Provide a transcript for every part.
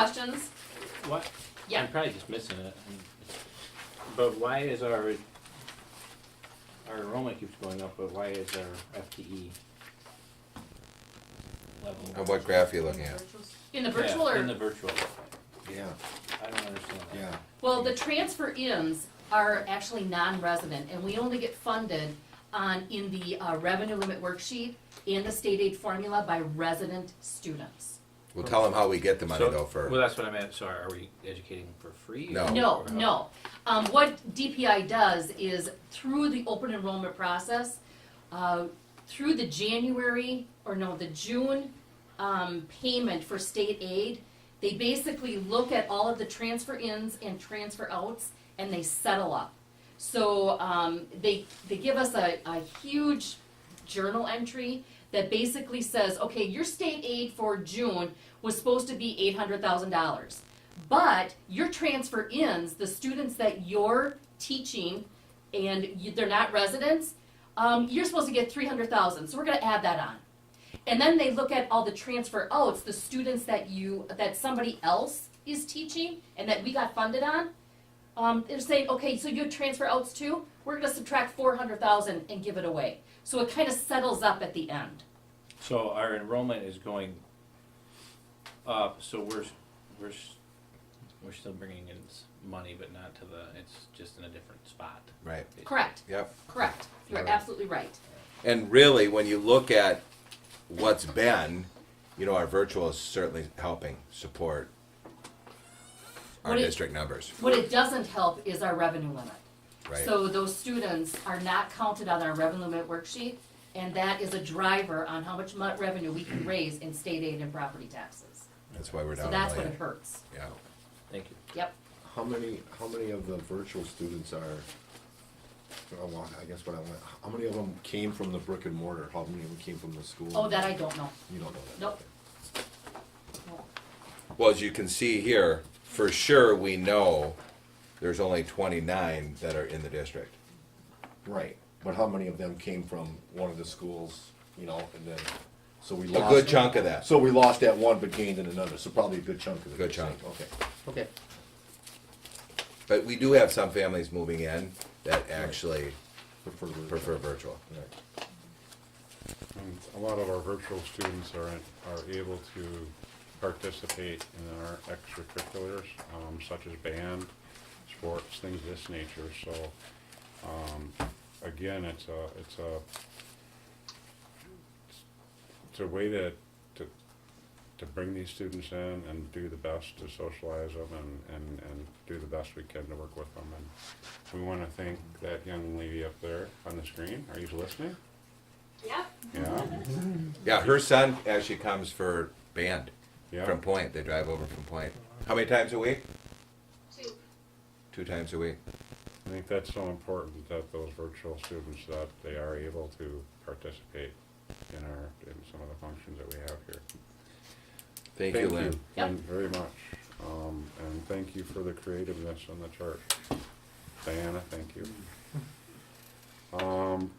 questions. What? Yeah. I'm probably just missing it. I mean, But why is our, our enrollment keeps going up, but why is our FTE Uh, level? What graph are you looking at? In the virtual Yeah, or In the virtual, Yeah, I don't understand that. yeah. Well, the transfer ins are actually non-resident, and we only get funded on, in the uh, revenue limit worksheet and the state aid formula by resident students. We'll tell them how we get the money So- though for. Well, that's what I meant, so are we educating for free? No. or- No, or how- no. Um, what DPI does is through the open enrollment process, uh, through the January, or no, the June, um, payment for state aid, they basically look at all of the transfer ins and transfer outs and they settle up. So, um, they, they give us a, a huge journal entry that basically says, okay, your state aid for June was supposed to be eight hundred thousand dollars. But your transfer ins, the students that you're teaching and you, they're not residents, um, you're supposed to get 300,000. So we're going to add that on. And then they look at all the transfer outs, the students that you that somebody else is teaching and that we got funded on. Um, they're saying, okay, so you have transfer outs too. We're going to subtract 400,000 and give it away. So it kind of settles up at the end. So our enrollment is going up, so we're, s- we're, s- we're still bringing in s- money, but not to the, it's just in a different spot. Right, Correct. yep. Correct. You're Right. absolutely right. And really, when you look at what's been, you know, our virtual is certainly helping support our What it- district numbers, What it doesn't help is our revenue limit. right? So those students are not counted on our revenue limit worksheet, and that is a driver on how much mu- revenue we can raise in state aid and property taxes. That's why we're So down that's a what it million. hurts. Yeah. Thank you. Yep. How many, how many of the virtual students are, oh, well, I guess what I want, how many of them came from the brick and mortar? How many of them came from the school? Oh, that I don't know. You don't know that? Nope. Well, as you can see here, for sure, we know there's only twenty-nine that are in the district. Right, but how many of them came from one of the schools, you know, and then, so we A lost. good chunk of that. So we lost that one but gained in another, so probably a good chunk of it. Good chunk. Okay, okay. But we do have some families moving in that actually Prefer. the- prefer virtual. Right. And a lot of our virtual students are, are able to participate in our extracurriculars, um, such as band, sports, things of this nature, so, um, again, it's a, it's a, it's a way to, to, to bring these students in and do the best to socialize them and, and, and do the best we can to work with them, and we wanna thank that young lady up there on the screen, are you listening? Yep. Yeah, Yeah, her son actually comes for band yeah. from Point. They drive over from Point. How many times a week? Two. Two times a week. I think that's so important that those virtual students, that they are able to participate in our, in some of the functions that we have here. Thank, you, Lynn. Yep. Lynn, very much. Um, and thank you for the creativeness on the chart. Diana, thank you. Um,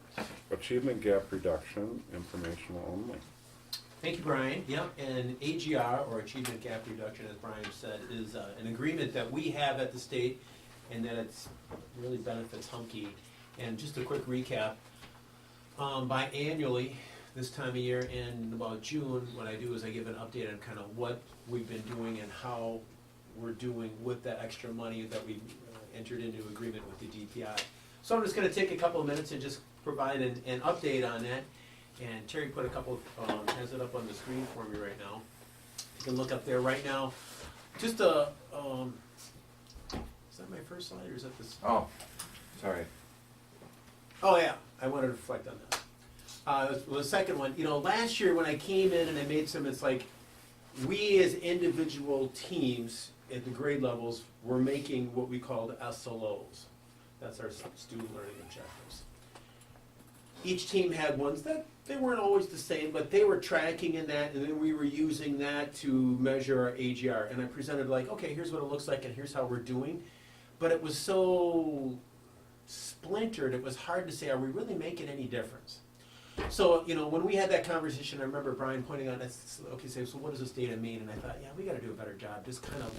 achievement gap reduction, informational only. Thank you, Brian. Yep, and AGR, or Achievement Gap Reduction, as Brian said, is uh, an agreement that we have at the state and that it's really benefits Humke. And just a quick recap, um, biannually, this time of year and about June, what I do is I give an update on kind of what we've been doing and how we're doing with that extra money that we uh, entered into agreement with the DPI. So I'm just gonna take a couple of minutes and just provide an, an update on that. And Terry put a couple, of, um, has it up on the screen for me right now. You can look up there right now. Just a, um, is that my first slide or is that this? Oh, sorry. Oh, yeah, I wanted to reflect on that. Uh, well, the second one, you know, last year when I came in and I made some, it's like, we as individual teams at the grade levels were making what we called SLOs. That's our student learning objectives. Each team had ones that, they weren't always the same, but they were tracking in that, and then we were using that to measure our AGR. And I presented like, okay, here's what it looks like and here's how we're doing. But it was so splintered, it was hard to say, are we really making any difference? So, you know, when we had that conversation, I remember Brian pointing out, that's- okay, so so what is the state of Maine? And I thought, yeah, we gotta do a better job, just kind of